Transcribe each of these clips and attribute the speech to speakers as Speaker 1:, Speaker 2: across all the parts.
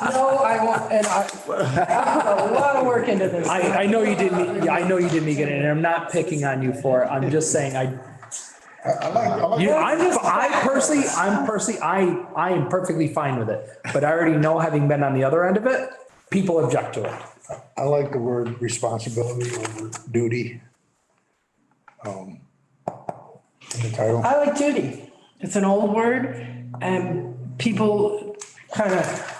Speaker 1: I want, and I, I put a lot of work into this.
Speaker 2: I, I know you didn't, yeah, I know you didn't get it, and I'm not picking on you for it, I'm just saying, I,
Speaker 3: I I like, I like.
Speaker 2: you, I'm just, I personally, I'm personally, I, I am perfectly fine with it. But I already know, having been on the other end of it, people object to it.
Speaker 3: I like the word responsibility over duty. um, in The title.
Speaker 1: I like duty. It's an old word and people kind of,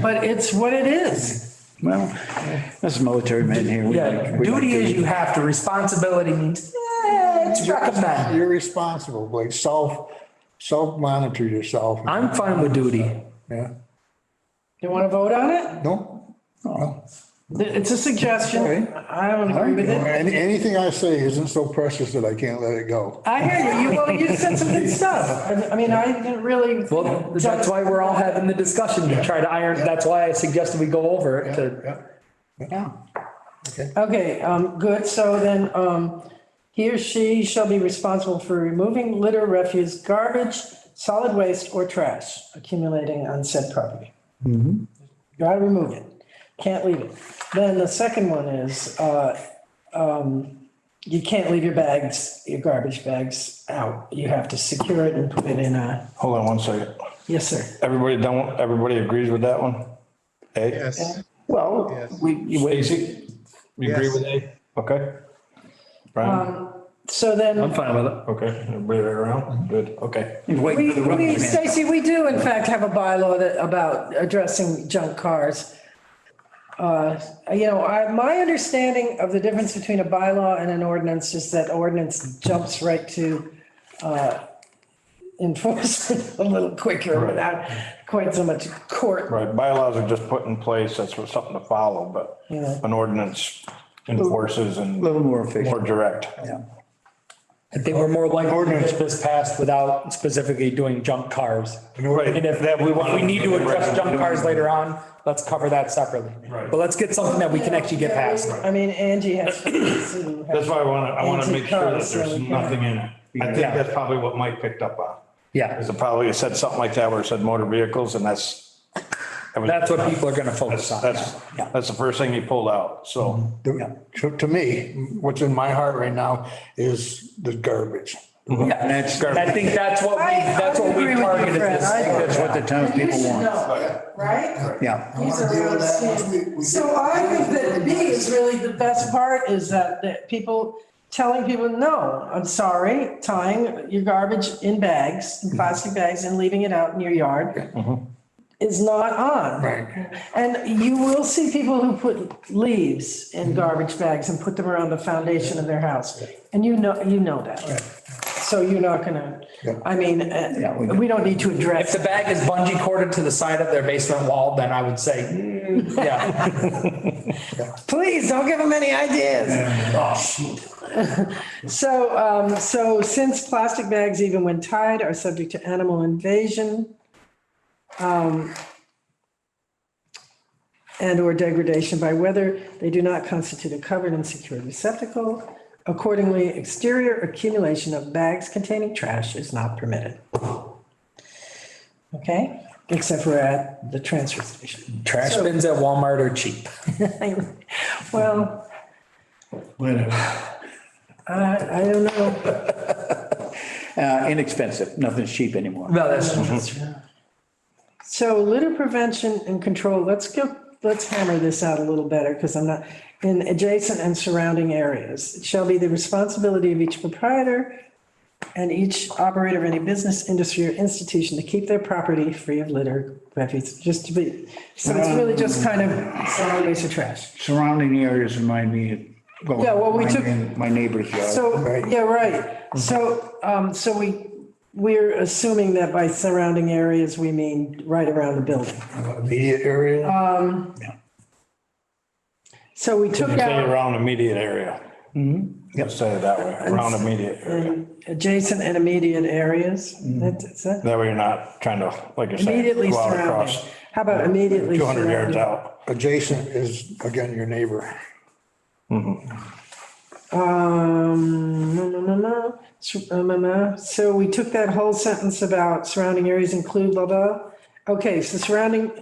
Speaker 1: but it's what it is.
Speaker 4: Well, that's military men here. We
Speaker 2: Yeah,
Speaker 4: like- we like
Speaker 2: duty is you have to, responsibility means, eh, it's recommend.
Speaker 3: You're responsible, like self, self-monitor yourself.
Speaker 2: I'm fine with duty.
Speaker 3: Yeah,
Speaker 1: You want to vote on it?
Speaker 3: no,
Speaker 4: Oh,
Speaker 3: no.
Speaker 1: It's a suggestion.
Speaker 3: Okay.
Speaker 1: I don't agree with it.
Speaker 3: Any, anything I say isn't so precious that I can't let it go.
Speaker 1: I hear you. You, well, you said some good stuff. I- I mean, I didn't really.
Speaker 2: Well, that's why we're all having the discussion to try to iron, that's why I suggested we go over it to,
Speaker 3: Yeah.
Speaker 4: Yeah.
Speaker 1: Okay, um, good, so then, um, he or she shall be responsible for removing litter, refuse, garbage, solid waste, or trash accumulating on said property. Gotta remove it, can't leave it. Then the second one is, uh, um, you can't leave your bags, your garbage bags out. You have to secure it and put it in a,
Speaker 5: Hold on one second.
Speaker 1: yes, sir.
Speaker 5: Everybody don't, everybody agrees with that one? A?
Speaker 6: Yes,
Speaker 4: Well,
Speaker 6: Yes.
Speaker 4: we, you wait,
Speaker 5: Stacy, you agree with A? Okay.
Speaker 4: Um,
Speaker 5: Brian,
Speaker 1: So then.
Speaker 2: I'm fine with it.
Speaker 5: okay, everybody right around? Good, okay.
Speaker 4: you wait
Speaker 1: We,
Speaker 4: for the rubber
Speaker 1: we,
Speaker 4: man.
Speaker 1: Stacy, we do in fact have a bylaw that, about addressing junk cars. Uh, You know, I, my understanding of the difference between a bylaw and an ordinance is that ordinance jumps right to uh, enforcement a little quicker without quite so much court.
Speaker 5: Right, bylaws are just put in place, that's what- something to follow, but
Speaker 1: Yeah.
Speaker 5: an ordinance enforces
Speaker 4: A
Speaker 5: and.
Speaker 4: little more
Speaker 5: More
Speaker 4: efficient.
Speaker 5: direct.
Speaker 2: I think we're more likely to get this passed without specifically doing junk cars.
Speaker 5: Right.
Speaker 2: And if that, we want, we need to address junk cars later on, let's cover that separately. Right. But let's get something that we can actually get past.
Speaker 1: I mean, Angie has.
Speaker 5: That's why I want to, I want to make sure that
Speaker 1: Anti-trust, so
Speaker 5: there's
Speaker 1: we can-
Speaker 5: nothing in it. I think
Speaker 2: Yeah.
Speaker 5: that's probably what Mike picked up on.
Speaker 2: Yeah,
Speaker 5: Is it probably, it said something like that where it said motor vehicles and that's. that was-
Speaker 2: that's what people are gonna focus on.
Speaker 5: That's, that's the first thing he pulled out,
Speaker 1: Mm-hmm.
Speaker 5: so.
Speaker 3: To, to- to me, what's in my heart right now is the garbage.
Speaker 4: And that's,
Speaker 2: And I think that's what we,
Speaker 1: I- I
Speaker 2: that's what we
Speaker 1: agree with you,
Speaker 2: targeted
Speaker 1: Fred.
Speaker 2: this.
Speaker 1: I-
Speaker 4: that's what the townspeople want.
Speaker 1: right?
Speaker 4: Yeah.
Speaker 1: These are real estate. So I think that B is really the best part is that, that people telling people, no, I'm sorry, tying your garbage in bags, in plastic bags and leaving it out in your yard is not on.
Speaker 3: Right.
Speaker 1: And you will see people who put leaves in garbage bags and put them around the foundation of their house. And you know, you know that. So you're not gonna, I mean, uh,
Speaker 4: we-
Speaker 1: we don't need to
Speaker 2: If
Speaker 1: address.
Speaker 2: the bag is bungee corded to the side of their basement wall, then I would say, mm, yeah.
Speaker 1: Please, don't give them any ideas. So, um, so since plastic bags, even when tied, are subject to animal invasion, um, and or degradation by weather, they do not constitute a covered and secured receptacle. Accordingly, exterior accumulation of bags containing trash is not permitted. Okay, except for at the transfer station.
Speaker 2: Trash bins at Walmart are cheap.
Speaker 1: Well, I, I don't know.
Speaker 4: Uh, inexpensive. Nothing's cheap anymore.
Speaker 2: No, that's.
Speaker 1: So litter prevention and control, let's go, let's hammer this out a little better because I'm not, in adjacent and surrounding areas. It shall be the responsibility of each proprietor and each operator of any business, industry or institution to keep their property free of litter, refuse, just to be, so it's really just kind of solid waste or trash.
Speaker 4: Surrounding areas remind me of. well,
Speaker 1: Yeah, well, we
Speaker 4: my
Speaker 1: took-
Speaker 4: neigh- My neighbor's yard.
Speaker 1: So, yeah, right. So, um, so we, we're assuming that by surrounding areas, we mean right around the building.
Speaker 3: Immediate area,
Speaker 1: So we took
Speaker 5: Say
Speaker 1: out
Speaker 5: around immediate area.
Speaker 1: Mm-hmm.
Speaker 5: Let's say it that way, around immediate area.
Speaker 1: adjacent and immediate areas. That's, that's it.
Speaker 5: That way you're not trying to, like you're saying,
Speaker 1: Immediately
Speaker 5: Mm-hmm. go out
Speaker 1: surrounding.
Speaker 5: across
Speaker 1: How about immediately
Speaker 5: two hundred yards
Speaker 1: surrounding?
Speaker 5: out.
Speaker 3: adjacent is, again, your neighbor.
Speaker 1: Um, no, no, no, no. Sur- um, um, uh, So we took that whole sentence about surrounding areas include blah, blah. Okay, so surrounding